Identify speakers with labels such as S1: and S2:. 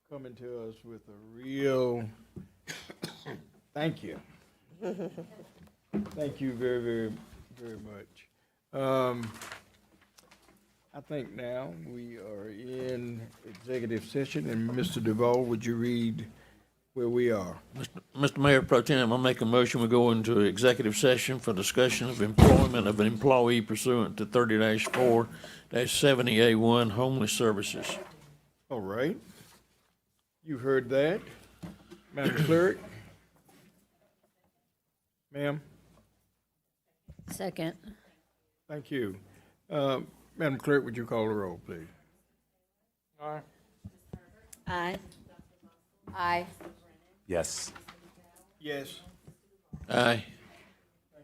S1: coming to us with a real, thank you. Thank you very, very, very much. Um, I think now we are in executive session, and Mr. Duval, would you read where we are?
S2: Mr. Mayor Pro Tem, I make a motion, we go into executive session for discussion of employment of an employee pursuant to thirty four seventy A one homeless services.
S1: All right. You heard that. Madam Clerk? Ma'am?
S3: Second.
S1: Thank you. Uh, Madam Clerk, would you call the roll, please?
S3: Aye. Aye.
S4: Yes.
S1: Yes.
S2: Aye.